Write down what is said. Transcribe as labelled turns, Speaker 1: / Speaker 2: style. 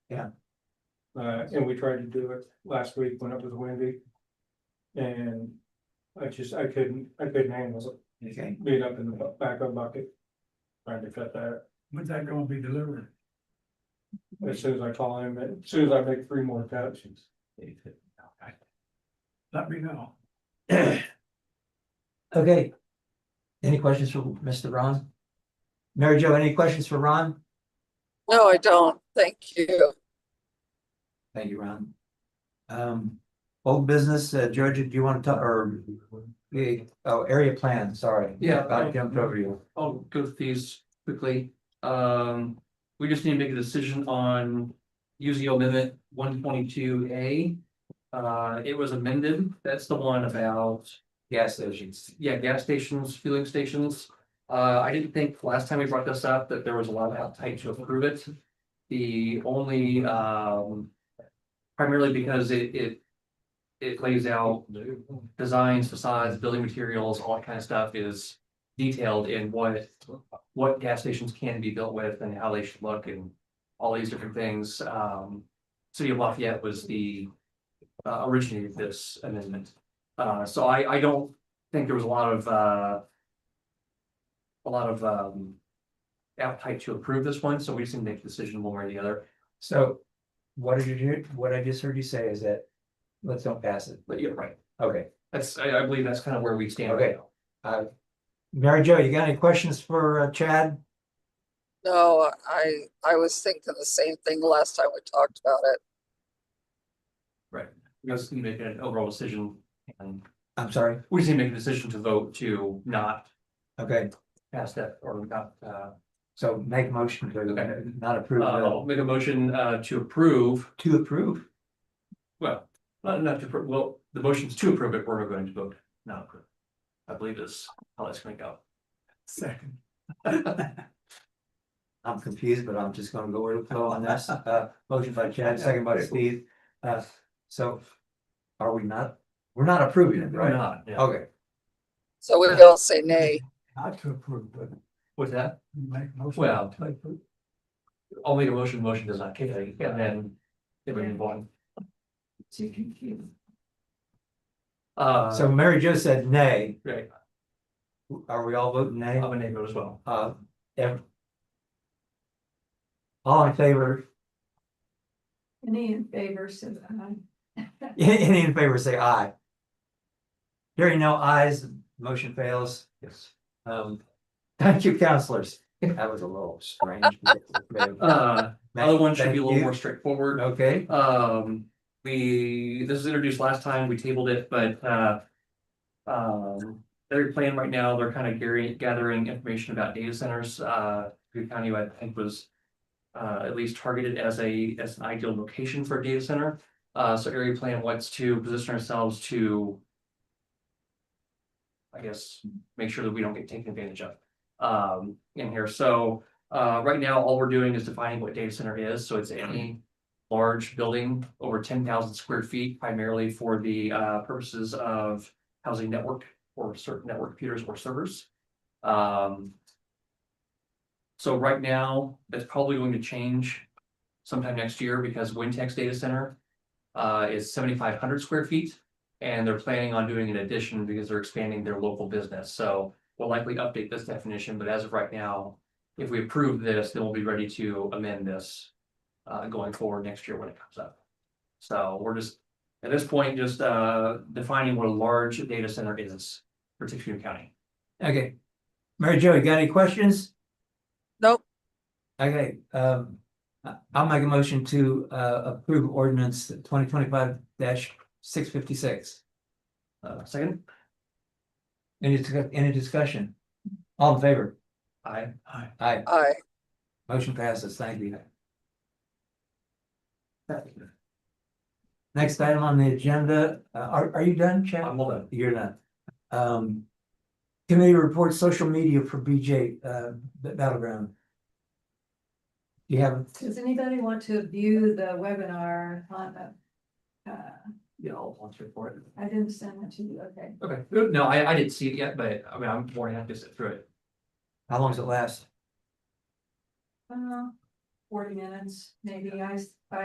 Speaker 1: Uh, and we tried to do it last week, went up with Wendy. And I just, I couldn't, I couldn't handle
Speaker 2: Okay,
Speaker 1: it, being up in the bu- back of bucket. Trying to cut that,
Speaker 3: When's that gonna be delivered?
Speaker 1: as soon as I call him, as soon as I make three more cuts,
Speaker 3: Let me know.
Speaker 2: okay. Any questions for Mr. Ron? Mary Jo, any questions for Ron?
Speaker 4: No, I don't. Thank you.
Speaker 2: Thank you, Ron. Um, old business, uh, Georgia, do you want to talk, or, eh, oh, area plan, sorry.
Speaker 5: Yeah.
Speaker 2: I jumped over you.
Speaker 5: I'll go through these quickly. Um, we just need to make a decision on UZO amendment one twenty-two A. Uh, it was amended. That's the one about,
Speaker 2: Gas stations.
Speaker 5: yeah, gas stations, fueling stations. Uh, I didn't think last time we brought this up that there was a lot of appetite to approve it. The only, um, primarily because it, it, it lays out designs, facades, building materials, all that kind of stuff is detailed in what, what gas stations can be built with and how they should look and all these different things. Um, City of Lafayette was the uh, originated this amendment. Uh, so I, I don't think there was a lot of, uh, a lot of, um, appetite to approve this one, so we just need to make a decision one way or the other.
Speaker 2: So what did you do, what I just heard you say is that, let's don't pass it.
Speaker 5: But you're right.
Speaker 2: Okay,
Speaker 5: That's, I, I believe that's kind of where we stand right
Speaker 2: Okay.
Speaker 5: now.
Speaker 2: Mary Jo, you got any questions for uh, Chad?
Speaker 4: No, I, I was thinking the same thing last time we talked about it.
Speaker 5: We just need to make an overall decision and
Speaker 2: I'm sorry,
Speaker 5: we just need to make a decision to vote to not
Speaker 2: okay,
Speaker 5: pass that or not, uh,
Speaker 2: so make a motion
Speaker 5: Okay.
Speaker 2: to not approve,
Speaker 5: uh,
Speaker 2: uh,
Speaker 5: I'll make a motion, uh, to approve,
Speaker 2: to approve.
Speaker 5: well, not, not to, appro- well, the motion's to approve it, we're going to vote not approve. I believe is how that's gonna go.
Speaker 3: Second.
Speaker 2: I'm confused, but I'm just gonna go with the flow on this, uh, motion by Chad, second by Steve, uh, so. Are we not, we're not approving it,
Speaker 5: Or
Speaker 2: right?
Speaker 5: not, yeah.
Speaker 2: Okay,
Speaker 4: So we all say nay.
Speaker 3: Not to approve, but
Speaker 5: With that,
Speaker 3: make most.
Speaker 5: Well, I'll make a motion, motion does not kick it, and then it would be one. Uh,
Speaker 2: so Mary Jo said nay,
Speaker 5: right,
Speaker 2: are we all voting nay?
Speaker 5: I'm a neighbor as well.
Speaker 2: Uh, ev- All in favor,
Speaker 6: Any in favor, says aye.
Speaker 2: any in favor, say aye. Hearing no ayes, motion fails.
Speaker 5: Yes.
Speaker 2: Um, thank you, counselors. That was a little strange.
Speaker 5: Uh, other one should be a
Speaker 2: Thank
Speaker 5: little
Speaker 2: you.
Speaker 5: more straightforward.
Speaker 2: Okay,
Speaker 5: Um, we, this was introduced last time, we tabled it, but, uh. Um, their plan right now, they're kind of gathering, gathering information about data centers, uh, Green County, I think was. Uh, at least targeted as a, as an ideal location for a data center, uh, so area plan wants to position ourselves to. I guess, make sure that we don't get taken advantage of, um, in here, so, uh, right now, all we're doing is defining what data center is, so it's any large building over ten thousand square feet primarily for the uh purposes of housing network or certain network computers or servers. Um. So right now, that's probably going to change sometime next year because WinTech's data center uh is seventy-five hundred square feet. And they're planning on doing an addition because they're expanding their local business. So we'll likely update this definition, but as of right now, if we approve this, then we'll be ready to amend this uh, going forward next year when it comes up. So we're just, at this point, just, uh, defining what a large data center is for Tuscany County.
Speaker 2: okay. Mary Jo, you got any questions?
Speaker 4: Nope.
Speaker 2: Okay, um, I- I'll make a motion to, uh, approve ordinance twenty twenty-five six fifty-six.
Speaker 5: Uh, second,
Speaker 2: Any, discuss- any discussion? All in favor?
Speaker 5: I,
Speaker 2: Aye,
Speaker 4: Aye.
Speaker 2: motion passes, thank you. Next item on the agenda, uh, are, are you done, Chad?
Speaker 5: I'm all done.
Speaker 2: You're not. Um. Committee reports social media for BJ, uh, B- battleground. You have,
Speaker 6: Does anybody want to view the webinar on the? Uh,
Speaker 5: Yeah, I'll volunteer for it.
Speaker 6: I didn't send it to you, okay.
Speaker 5: Okay, no, I, I didn't see it yet, but I mean, I'm more than happy to sit through it.
Speaker 2: how long does it last?
Speaker 6: Uh, forty minutes, maybe I, s- I